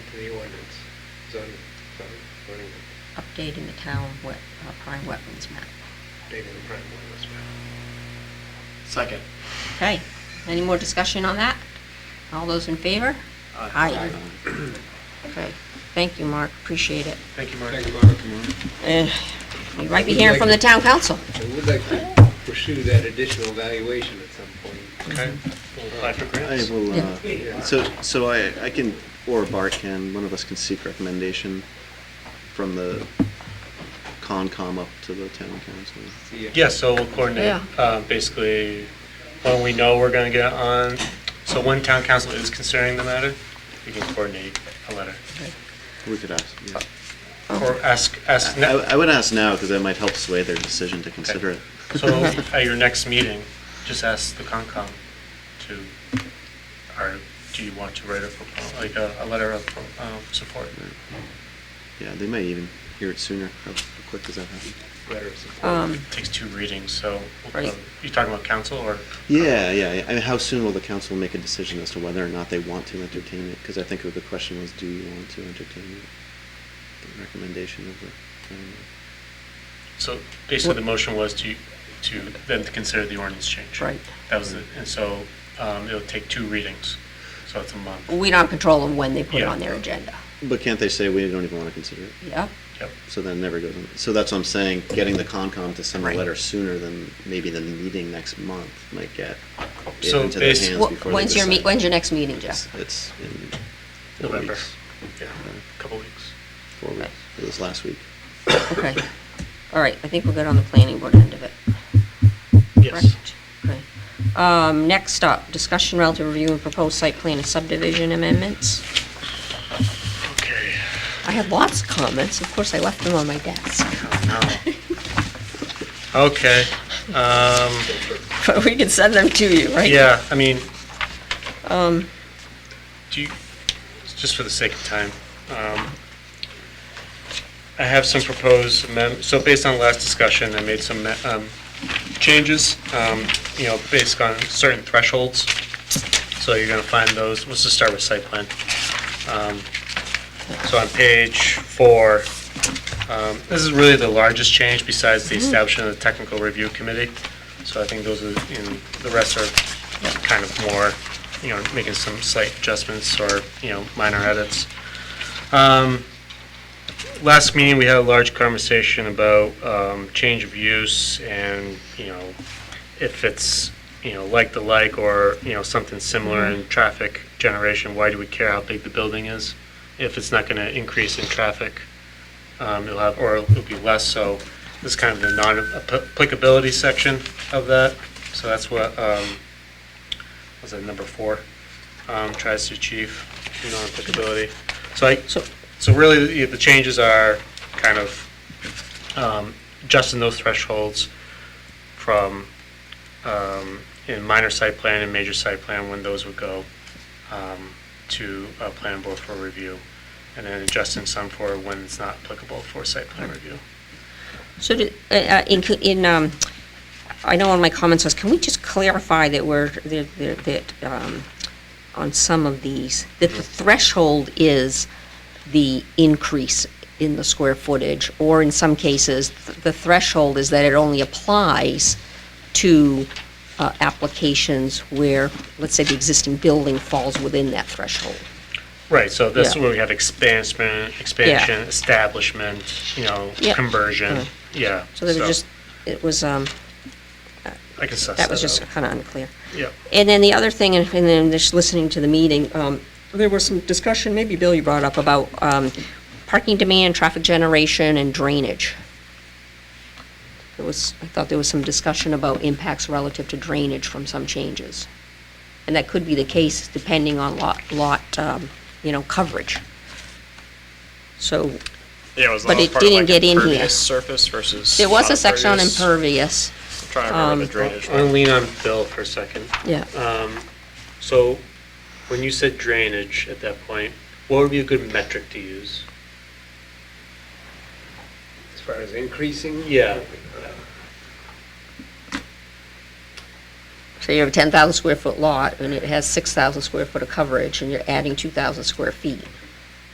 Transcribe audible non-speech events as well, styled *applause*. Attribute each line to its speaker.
Speaker 1: to the ordinance, zoning, zoning, zoning,
Speaker 2: updating the town wet, uh, prime weapons map.
Speaker 1: dating the prime ordinance map.
Speaker 3: Second.
Speaker 2: Okay, any more discussion on that? All those in favor? Aye. Okay, thank you, Mark, appreciate it.
Speaker 3: Thank you, Mark.
Speaker 1: Thank you, Mark.
Speaker 2: And you might be hearing from the town council.
Speaker 1: I would like to pursue that additional valuation at some point. Uh,
Speaker 3: Okay. We'll apply for
Speaker 4: I
Speaker 3: grants.
Speaker 4: will,
Speaker 1: Yeah.
Speaker 4: uh, so, so I, I can, or Bart can, one of us can seek recommendation from the Concom up to the town council.
Speaker 1: See if-
Speaker 3: Yeah, so we'll coordinate, uh, basically, when we know we're gonna get on, so when town council is considering the matter, we can coordinate a letter.
Speaker 4: We could ask, yeah.
Speaker 3: Or ask, ask, ne-
Speaker 4: I, I would ask now, because that might help sway their decision to consider it.
Speaker 3: so *laughs* at your next meeting, just ask the Concom to, or do you want to write a, propo- like, a, a letter of, um, support?
Speaker 4: *laughs* Yeah, they may even hear it sooner, how quick does that happen?
Speaker 1: Letter of support.
Speaker 2: Um,
Speaker 3: It takes two readings, so,
Speaker 2: Right.
Speaker 3: um, you talking about council or?
Speaker 4: Yeah, yeah, yeah. I mean, how soon will the council make a decision as to whether or not they want to entertain it? Because I think the question was, do you want to entertain it? The recommendation of the, um,
Speaker 3: So basically, the motion was to, to then to consider the ordinance change.
Speaker 2: Right.
Speaker 3: That was, the and so um, it'll take two readings, so it's a month.
Speaker 2: we don't control them when they put it
Speaker 3: Yeah.
Speaker 2: on their agenda.
Speaker 4: but can't they say, we don't even want to consider it?
Speaker 2: Yep,
Speaker 3: Yep.
Speaker 4: So then it never goes on. So that's what I'm saying, getting the Concom to send a
Speaker 2: Right.
Speaker 4: letter sooner than maybe the meeting next month might get it
Speaker 3: So
Speaker 4: into their
Speaker 3: basi-
Speaker 4: hands
Speaker 2: Wh-
Speaker 4: before they
Speaker 2: when's your, meet?
Speaker 4: decide.
Speaker 2: when's your next meeting,
Speaker 4: It's-
Speaker 2: Jeff?
Speaker 4: It's in four
Speaker 3: November.
Speaker 4: weeks. Uh,
Speaker 3: Yeah, a couple weeks.
Speaker 4: Four weeks. It was last week.
Speaker 2: Okay, all right, I think we're good on the planning board end of it.
Speaker 3: Yes.
Speaker 2: Correct. Okay. Um, next up, discussion relative review and proposed site plan and subdivision amendments.
Speaker 3: Okay.
Speaker 2: I had lots of comments, of course, I left them on my desk, *laughs*
Speaker 3: Oh, no. Okay. *laughs* um,
Speaker 2: but we can send them to you, right?
Speaker 3: Yeah, I mean, do you, just for the sake of time, um, I have some proposed amendments, so based on last discussion, I made some um, changes, um, you know, based on certain thresholds. So you're gonna find those, let's just start with site plan. Um, So on page four, um, this is really the largest change besides the establishment of the technical review committee. So I think those are, in the rest are kind of more, you know, making some slight adjustments or, you know, minor edits. Um, Last meeting, we had a large conversation about um, change of use and, you know, if it's, you know, like the like or, you know, something similar in traffic generation, why do we care how big the building is? If it's not going to increase in traffic, um, it'll have, or it'll be less, so this is kind of the non-applicability section of that. So that's what, um, was that number four, um, tries to achieve non-applicability. So I,
Speaker 2: So-
Speaker 3: so really, the- the changes are kind of, um, adjusting those thresholds from, um, in minor site plan and major site plan, when those would go, um, to a plan board for review, and then adjusting some for when it's not applicable for site plan review.
Speaker 2: So, did- uh, uh, in, in, um, I know one of my comments was, can we just clarify that we're, that, that- that, um, on some of these, that the threshold is the increase in the square footage, or in some cases, th- the threshold is that it only applies to, uh, applications where, let's say, the existing building falls within that threshold.
Speaker 3: Right, so that's
Speaker 2: Yeah.
Speaker 3: where we have expansion, expansion, establishment, you know,
Speaker 2: Yeah.
Speaker 3: conversion, yeah.
Speaker 2: Mm-hmm. So there was just, it was, um,
Speaker 3: I can suss
Speaker 2: that was
Speaker 3: that
Speaker 2: just
Speaker 3: out.
Speaker 2: kind of unclear.
Speaker 3: Yeah,
Speaker 2: And then the other thing, and and then just listening to the meeting, um, there was some discussion, maybe Bill, you brought up about um, parking demand, traffic generation, and drainage. There was, I thought there was some discussion about impacts relative to drainage from some changes. And that could be the case depending on lot, lot, um, you know, coverage. So
Speaker 5: Yeah, it was
Speaker 2: But
Speaker 5: that was
Speaker 2: it
Speaker 5: part of,
Speaker 2: didn't
Speaker 5: like,
Speaker 2: get in here.
Speaker 5: impervious surface versus.
Speaker 2: there was a section on um,
Speaker 5: impervious.
Speaker 2: impervious,
Speaker 5: I'm Trying to remember the drainage
Speaker 3: I'll
Speaker 5: one.
Speaker 3: lean on Bill for a second. Um,
Speaker 2: yeah.
Speaker 3: So, when you said drainage at that point, what would be a good metric to use?
Speaker 1: As far as increasing?
Speaker 3: Yeah.
Speaker 2: So you have a 10,000 square foot lot, and it has 6,000 square foot of coverage, and you're adding 2,000 square feet.